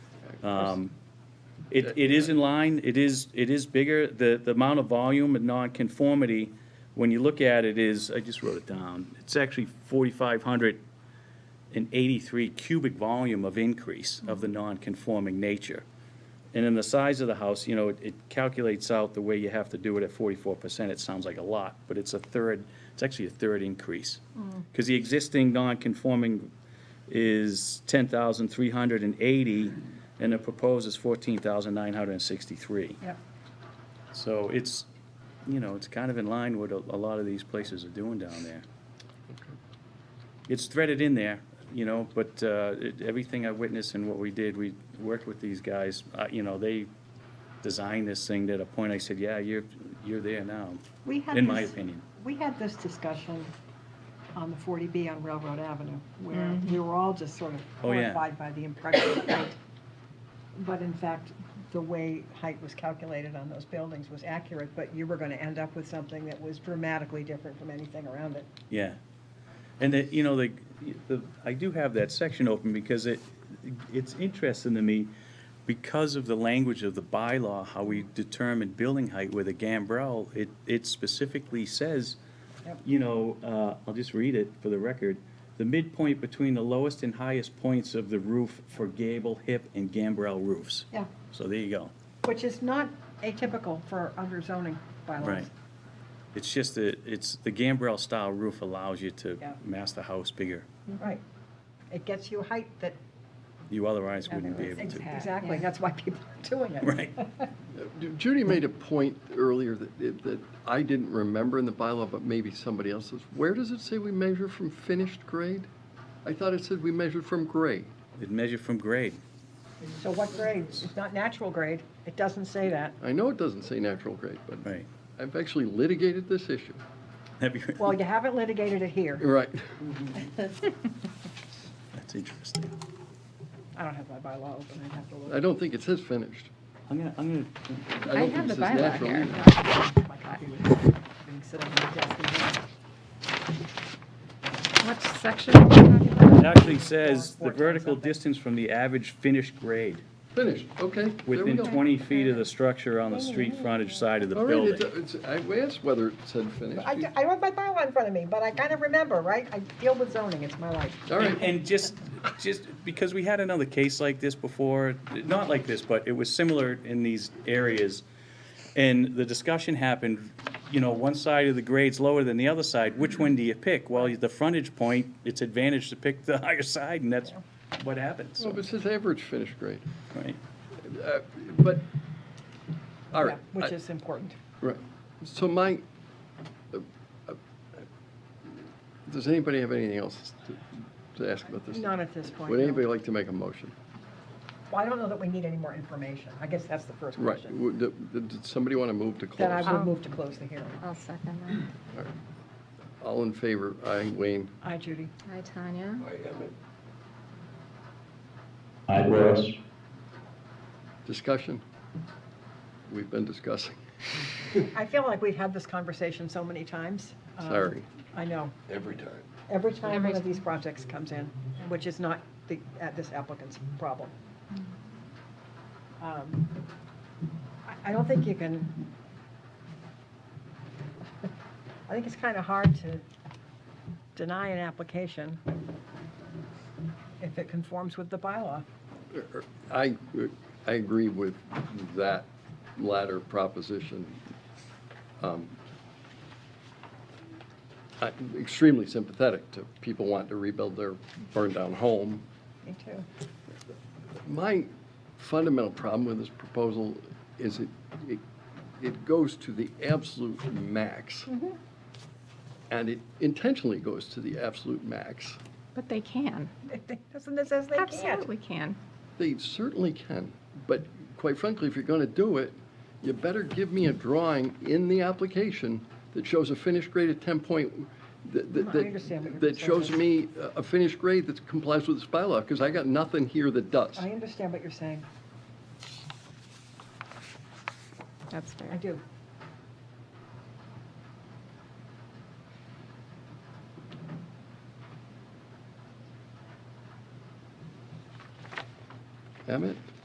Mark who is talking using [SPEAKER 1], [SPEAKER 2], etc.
[SPEAKER 1] Um, It, it is in line, it is, it is bigger, the, the amount of volume and nonconformity, when you look at it is, I just wrote it down, it's actually forty-five hundred and eighty-three cubic volume of increase of the nonconforming nature. And in the size of the house, you know, it- it calculates out the way you have to do it at forty-four percent, it sounds like a lot, but it's a third, it's actually a third increase. Because the existing nonconforming is ten thousand three hundred and eighty, and the proposed is fourteen thousand nine hundred and sixty-three.
[SPEAKER 2] Yep.
[SPEAKER 1] So it's, you know, it's kind of in line with what a a lot of these places are doing down there. It's threaded in there, you know, but uh, it- everything I witnessed and what we did, we worked with these guys, uh, you know, they designed this thing that at a point I said, yeah, you're, you're there now,
[SPEAKER 2] We had
[SPEAKER 1] in my
[SPEAKER 2] this-
[SPEAKER 1] opinion.
[SPEAKER 2] We had this discussion on the 40B on Railroad Avenue, where we were all just sort of
[SPEAKER 1] Oh, yeah.
[SPEAKER 2] horrified by the impression of height. But in fact, the way height was calculated on those buildings was accurate, but you were going to end up with something that was dramatically different from anything around it.
[SPEAKER 1] Yeah. And that, you know, the, the, I do have that section open because it, it's interesting to me because of the language of the bylaw, how we determine building height with a gambrel, it, it specifically says,
[SPEAKER 2] Yep.
[SPEAKER 1] you know, uh, I'll just read it for the record. The midpoint between the lowest and highest points of the roof for gable, hip, and gambrel roofs.
[SPEAKER 2] Yeah,
[SPEAKER 1] So there you go.
[SPEAKER 2] which is not atypical for other zoning bylaws.
[SPEAKER 1] Right. It's just that, it's, the gambrel style roof allows you to
[SPEAKER 2] Yeah.
[SPEAKER 1] mass the house bigger.
[SPEAKER 2] Right. It gets you height that,
[SPEAKER 1] You otherwise wouldn't be able to.
[SPEAKER 2] exactly, that's why people are doing it.
[SPEAKER 1] Right.
[SPEAKER 3] Uh, Judy made a point earlier that, that I didn't remember in the bylaw, but maybe somebody else does. Where does it say we measure from finished grade? I thought it said we measured from grade.
[SPEAKER 1] It measured from grade.
[SPEAKER 2] So what grade? It's not natural grade. It doesn't say that.
[SPEAKER 3] I know it doesn't say natural grade, but
[SPEAKER 1] Right.
[SPEAKER 3] I've actually litigated this issue.
[SPEAKER 1] Have you-
[SPEAKER 2] Well, you haven't litigated it here.
[SPEAKER 3] Right.
[SPEAKER 1] That's interesting.
[SPEAKER 2] I don't have my bylaw open. I'd have to
[SPEAKER 3] I
[SPEAKER 2] look.
[SPEAKER 3] don't think it says finished.
[SPEAKER 1] I'm gonna, I'm
[SPEAKER 3] I
[SPEAKER 4] I
[SPEAKER 3] don't
[SPEAKER 4] have
[SPEAKER 3] think
[SPEAKER 4] the
[SPEAKER 3] it says
[SPEAKER 4] bylaw
[SPEAKER 3] natural
[SPEAKER 4] here.
[SPEAKER 3] either.
[SPEAKER 2] My copy was being sitting on my desk. and then-
[SPEAKER 4] What section? are we talking about?
[SPEAKER 1] gonna, it actually says the
[SPEAKER 2] Four, four,
[SPEAKER 1] vertical
[SPEAKER 2] something.
[SPEAKER 1] distance from the average finished grade
[SPEAKER 3] Finished, okay, there we
[SPEAKER 1] within
[SPEAKER 3] go.
[SPEAKER 1] twenty feet of the structure on the street frontage side of the
[SPEAKER 3] All right,
[SPEAKER 1] building.
[SPEAKER 3] it's, it's, I asked whether it said finished.
[SPEAKER 2] I, I don't have my bylaw in front of me, but I kind of remember, right? I deal with zoning. It's my life.
[SPEAKER 3] All
[SPEAKER 1] And,
[SPEAKER 3] right,
[SPEAKER 1] and just, just because we had another case like this before, not like this, but it was similar in these areas. And the discussion happened, you know, one side of the grade's lower than the other side, which one do you pick? Well, the frontage point, it's advantage to pick the higher side, and that's what happens.
[SPEAKER 3] well, it says average finished grade,
[SPEAKER 1] Right.
[SPEAKER 3] Uh, but, all
[SPEAKER 2] Yeah,
[SPEAKER 3] right. I-
[SPEAKER 2] Which is important.
[SPEAKER 3] Right. So my, uh, uh, does anybody have anything else to, to ask about this?
[SPEAKER 2] Not at this point.
[SPEAKER 3] Would
[SPEAKER 2] no.
[SPEAKER 3] anybody like to make a motion?
[SPEAKER 2] Well, I don't know that we need any more information. I guess that's the first
[SPEAKER 3] Right.
[SPEAKER 2] question.
[SPEAKER 3] Would- Did did somebody want to move to
[SPEAKER 2] Then I
[SPEAKER 3] close?
[SPEAKER 2] would move to close the hearing.
[SPEAKER 4] I'll second
[SPEAKER 3] All in favor? Aye, Wayne.
[SPEAKER 2] Aye, Judy.
[SPEAKER 4] that. Hi, Tanya.
[SPEAKER 5] I Russ.
[SPEAKER 3] Discussion? We've been discussing.
[SPEAKER 2] I feel like we've had this conversation so many times. Um,
[SPEAKER 3] Sorry.
[SPEAKER 2] I know.
[SPEAKER 3] Every time.
[SPEAKER 2] Every time
[SPEAKER 4] Every
[SPEAKER 2] one of these projects comes in, which is not the, uh, this applicant's problem. Um, I- I don't think you can, I think it's kind of hard to deny an application if it conforms with the bylaw.
[SPEAKER 3] I, I agree with that latter proposition. Um, I'm extremely sympathetic to people wanting to rebuild their burned-down home.
[SPEAKER 2] Me too.
[SPEAKER 3] My fundamental problem with this proposal is it, it, it goes to the absolute max. And it intentionally goes to the absolute max.
[SPEAKER 4] But they can.
[SPEAKER 2] Doesn't it says they can't?
[SPEAKER 4] Absolutely can.
[SPEAKER 3] They certainly can, but quite frankly, if you're going to do it, you better give me a drawing in the application that shows a finished grade of 10 point, that,
[SPEAKER 2] I
[SPEAKER 3] that-
[SPEAKER 2] understand what your
[SPEAKER 3] that, that shows
[SPEAKER 2] concern
[SPEAKER 3] me a- a finished grade that complies with this bylaw, because I got nothing here that does.
[SPEAKER 2] I understand what you're saying.
[SPEAKER 4] That's
[SPEAKER 2] I
[SPEAKER 4] fair.
[SPEAKER 2] do.
[SPEAKER 3] Emmett?